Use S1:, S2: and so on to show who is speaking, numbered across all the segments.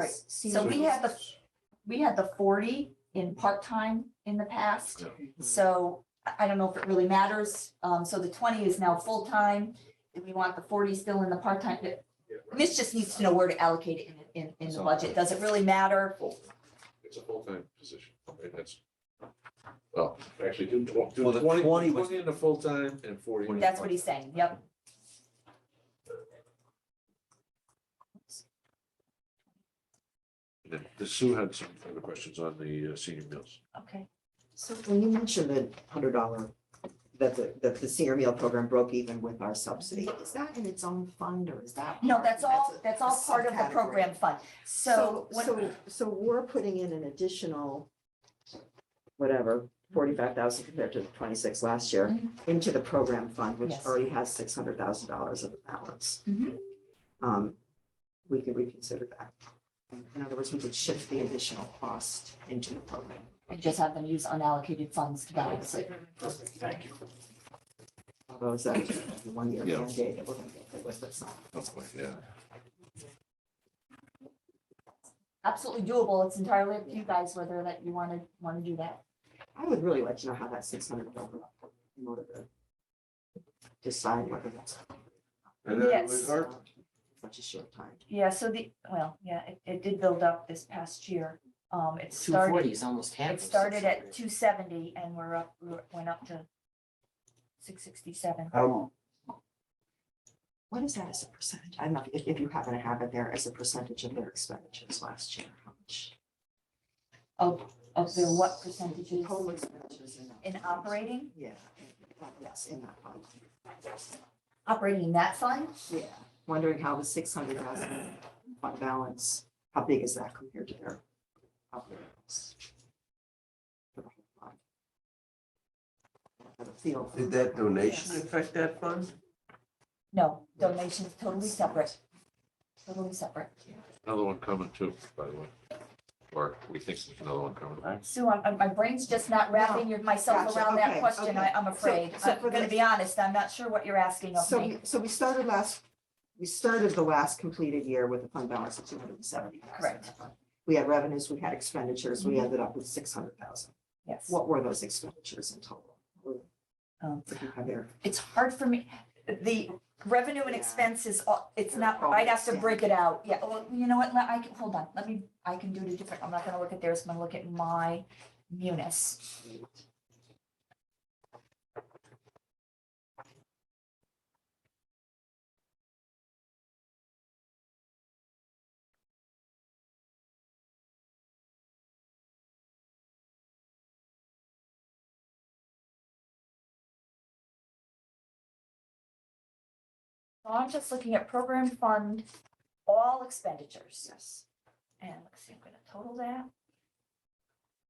S1: Right, so we had the, we had the forty in part-time in the past. So I, I don't know if it really matters. Um, so the twenty is now full-time. Do we want the forty still in the part-time? The- Mitch just needs to know where to allocate it in, in, in the budget. Does it really matter?
S2: It's a full-time position, right, that's. Well, actually, do tw- do
S3: Well, the
S2: 20
S3: 20 was-
S2: 20 in the full-time and forty. in the
S1: That's what he's saying, yep.
S2: part-time. And then Sue had some other questions on the uh, senior meals.
S1: Okay.
S4: So when you mentioned the hundred dollar, that the, that the senior meal program broke even with our subsidy, is that in its own fund or is that?
S1: No,
S4: part-
S1: that's all,
S4: a-
S1: that's
S4: a
S1: all part of the
S4: subcategory?
S1: program fund. So
S4: So,
S1: what,
S4: so, so we're putting in an additional, whatever, forty-five thousand compared to the twenty-six last year into the program fund,
S1: Mm-hmm.
S4: which
S1: Yes.
S4: already has six hundred thousand dollars of balance.
S1: Mhm.
S4: Um, we could reconsider that. In other words, we could shift the additional cost into the program.
S1: we just have them use unallocated funds to balance it.
S4: Thank you. Although is that the one year
S2: Yeah.
S4: mandate that we're gonna get rid of this?
S2: Yeah.
S1: Absolutely doable. It's entirely up to you guys whether that you wanna, wanna do that.
S4: I would really like to know how that six hundred over in order to decide whether that's
S2: And then
S1: Yes.
S2: with our,
S4: such a short time.
S1: Yeah, so the, well, yeah, it, it did build up this past year. Um, it
S5: Two
S1: started,
S5: forty is almost half.
S1: it
S5: of
S1: started at
S5: 600.
S1: two seventy and we're up, we went up to six sixty-seven.
S3: Um,
S4: What is that as a percentage? I'm not, if, if you happen to have it there as a percentage of their expenditures last year, how much?
S1: Of, of the what percentage is
S4: Total expenditures in that.
S1: in
S4: fund.
S1: operating,
S4: Yeah, in- yes, in that fund.
S1: operating in that fund?
S4: Yeah, wondering how the six hundred thousand fund balance, how big is that compared to their operations? For the whole fund. For the field.
S3: did that donation affect that fund?
S1: No, donations totally separate. Totally separate.
S2: another one coming too, by the way. Or we think there's another one coming.
S1: Sue, I'm, I'm- my brain's just not wrapping your- myself
S4: Gotcha,
S1: around that
S4: okay,
S1: question, I,
S4: okay.
S1: I'm
S4: So-
S1: afraid.
S4: so
S1: I'm
S4: for
S1: gonna
S4: the-
S1: be honest, I'm not sure what you're asking of
S4: So,
S1: me.
S4: we- so we started last, we started the last completed year with a fund balance of two hundred and seventy thousand.
S1: Correct.
S4: We had revenues, we had expenditures, we ended up with six hundred thousand.
S1: Yes.
S4: What were those expenditures in total?
S1: Um,
S4: If you have their
S1: it's hard for me, the revenue and
S4: Yeah.
S1: expenses, uh, it's not,
S4: Oh, I
S1: I'd have to
S4: understand.
S1: break it out, yeah, well, you know what, let- I can, hold on, let me, I can do it a different, I'm not gonna look at theirs, I'm gonna look at my munis. So I'm just looking at program fund, all expenditures.
S4: Yes.
S1: and let's see, I'm gonna total that.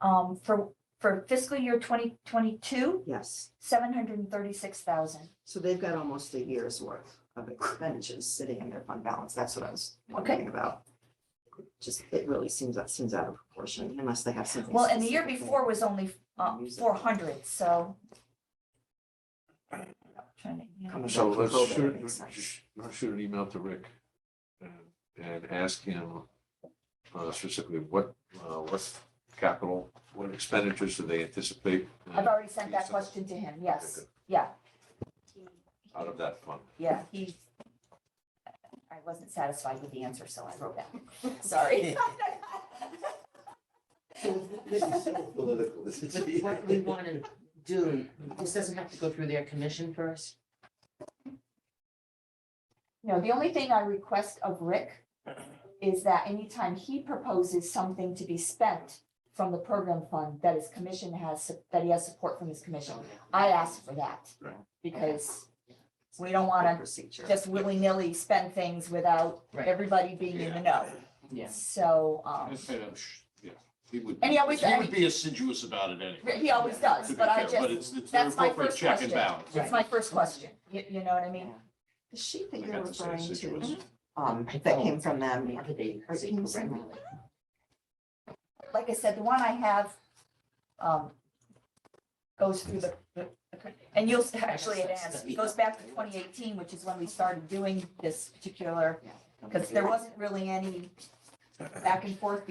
S1: Um, for, for fiscal year twenty twenty-two,
S4: Yes,
S1: seven hundred and thirty-six thousand.
S4: so they've got almost a year's worth of expenditures sitting in their fund balance, that's what I was wondering about. Just, it really seems, that seems out of proportion unless they have something.
S1: Well, and the year
S4: specific.
S1: before was only, uh,
S4: Use it.
S1: four hundred, so. Trying to, you know,
S4: Coming back
S2: So
S4: from
S2: let's
S4: COVID, that
S2: shoot,
S4: makes sense.
S2: let's shoot an email to Rick and, and ask him uh, specifically what, uh, what capital, what expenditures do they anticipate? uh,
S1: I've already sent that question to him, yes, yeah,
S2: Out of that fund.
S1: yeah, he. I wasn't satisfied with the answer, so I wrote that, sorry.
S3: Political.
S5: But What we want to do, this doesn't have to go through their commission first.
S1: You know, the only thing I request of Rick is that anytime he proposes something to be spent from the program fund that his commission has, that he has support from his commission, I ask for that.
S2: Right.
S1: Because we don't wanna
S4: Procedure.
S1: just willy-nilly spend things without
S5: Right.
S1: everybody being in the know.
S5: Yes.
S1: So, um,
S2: Yeah, he would.
S1: And he always-
S6: He would be assiduous about it anyway.
S1: he always does,
S6: to be
S1: but I
S6: fair, But
S1: just,
S6: it's, it's an
S1: that's my
S6: appropriate
S1: first
S6: check and
S1: question.
S6: balance.
S1: it's my first question, you, you know what I mean?
S4: Yeah. The sheet that
S2: I
S4: you're
S2: got the same
S4: referring to,
S2: situation.
S4: um,
S5: I
S4: that
S5: don't.
S4: came from
S5: I mean,
S4: them,
S5: other day,
S4: Or
S5: say
S4: can you send
S5: correctly.
S1: like I said, the one I have, um, goes through the, the- and you'll, actually it ends, it goes back to twenty eighteen, which is when we started doing this particular, because there wasn't really any back and forth